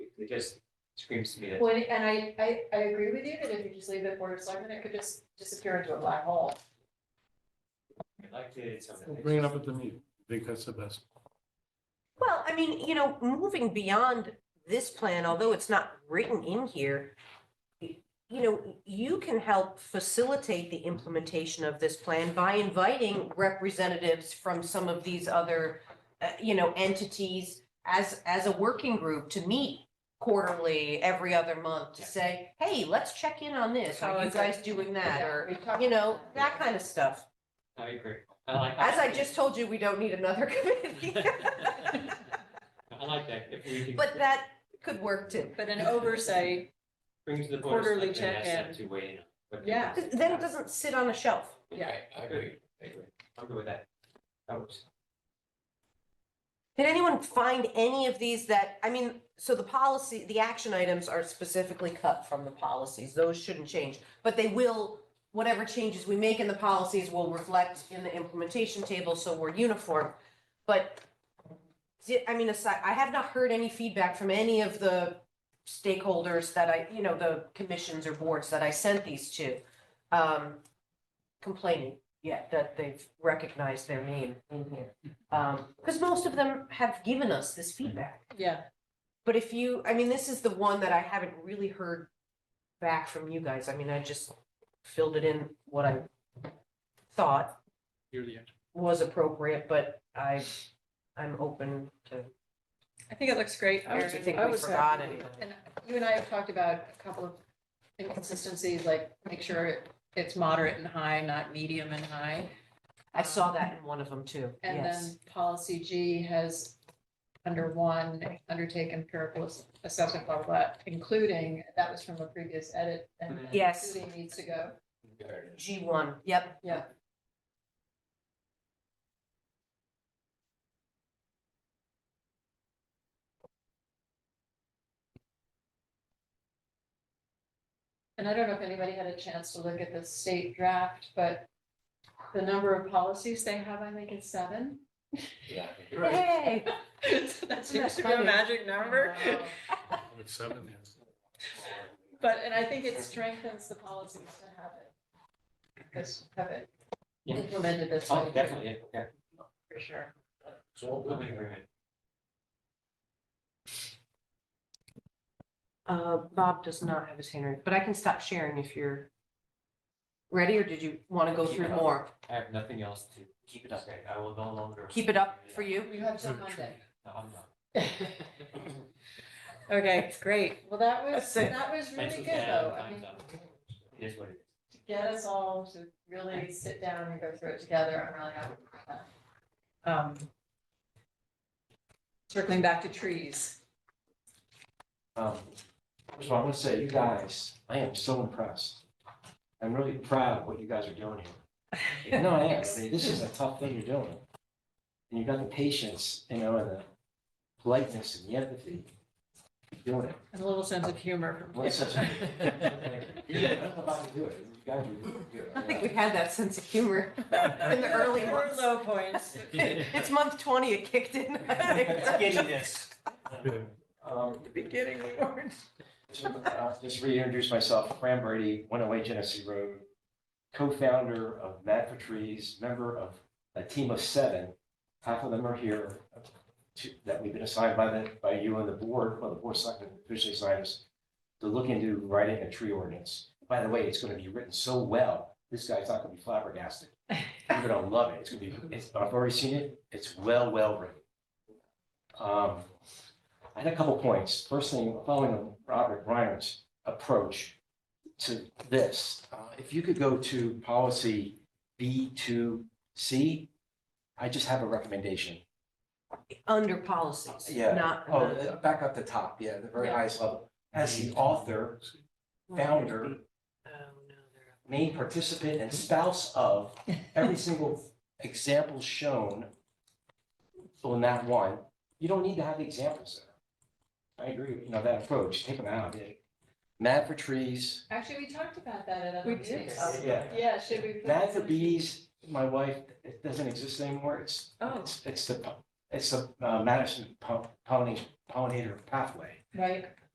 it just screams to me that. Well, and I, I, I agree with you that if you just leave it Board of Selectmen, it could just disappear into a black hole. I liked it, it's something. We'll Bring it up at the meeting. I think that's the best. Well, I mean, you know, moving beyond this plan, although it's not written in here, y- you know, you can help facilitate the implementation of this plan by inviting representatives from some of these other, uh, you know, entities as, as a working group to meet quarterly, every other month to say, hey, let's check in on this. How Are you is it- guys doing that? Or, We've talked you know, about that kind of stuff. I agree. I like. As I just told you, we don't need another committee. I like that, if we can. But that could work too. But an oversight, Brings the board of quarterly selectmen, ask check them in. to weigh in. on what they Yeah. think. Because then it doesn't sit on a shelf. yeah. I agree, I agree. I'm good with that. That works. Did anyone find any of these that, I mean, so the policy, the action items are specifically cut from the policies. Those shouldn't change. But they will, whatever changes we make in the policies will reflect in the implementation table, so we're uniform. But di- I mean, aside, I have not heard any feedback from any of the stakeholders that I, you know, the commissions or boards that I sent these to um, complaining yet that they've recognized their name in here. Um, because most of them have given us this Mm-hmm. feedback. Yeah, But if you, I mean, this is the one that I haven't really heard back from you guys. I mean, I just filled it in what I thought You're the expert. was appropriate, but I, I'm open to, I think it looks great. I don't Erin. think I we was forgot happy. anything. And you and I have talked about a couple of inconsistencies, like make sure it- it's moderate and high, not medium and high. Um, I saw that in one of them too, And yes. then policy G has under one, undertake empirical ass- assessment, blah, blah, blah, including, that was from a previous edit. and Mhm. Yes. Including needs to go. G one, yep. Yeah. And I don't know if anybody had a chance to look at the state draft, but the number of policies they have, I think it's seven. Yeah. Yay. So That seems to be a funny? magic number. With seven, yes. But, and I think it strengthens the policies to have it. Because have it Yeah. implemented this way. Oh, definitely, yeah. For sure. So we'll be agreement. Uh, Bob does not have his hand raised, but I can stop sharing if you're ready, or did you want to go Keep through it up. more? I have nothing else to keep it up. there. I will no longer. Keep it up for you? You have till Very true. Monday. No, I'm not. Okay, great. Well, that was, That's it. that was really Thanks good for that. though. I Time's mean, up. It is what it is. to get us all to really sit down and go through it together, I'm really happy with that. Um, Circling back to trees. Um, First of all, I want to say, you guys, I am so impressed. I'm really proud of what you guys are doing here. No, I am. I mean, This is a tough thing you're doing. And you got the patience, you know, and the politeness and the empathy. You're Doing it. And a little sense of humor from. Well, it's such a- You don't know how to do it. You guys are really good. I don't think we had that sense of humor in the early Or months. low points. It's month twenty, it kicked in. Getting this. Um, Beginning we weren't. So, uh, Just reintroduce myself, Fran Brady, 108 Genesee Road, co-founder of Mad for Trees, member of a team of seven. Half of them are here to- that we've been assigned by the, by you and the board, well, the board selected officially assigned us to look into writing a tree ordinance. By the way, it's going to be written so well, this guy's not going to be flabbergasted. You're going to love it. It's going to be, it's- I've already seen it. It's well, well written. Um, I had a couple points. First thing, following Robert Reiner's approach to this, uh, if you could go to policy B2C, I just have a recommendation. Under policies, Yeah. not. Oh, uh, back up the top, yeah, the very Yeah. highest level. As the author, founder, Oh, no, they're- main participant, and spouse of every single example shown on that one, you don't need to have the examples there. I agree, with you know, that approach, take them out. Mad for trees, Actually, we talked about that at We other did. meetings. yeah. Yeah, should we? put Mad this for in? bees, my wife, it doesn't exist anymore, it's, Oh, it's, it's the, it's the uh, Madison po- pollinator, pollinator pathway. right.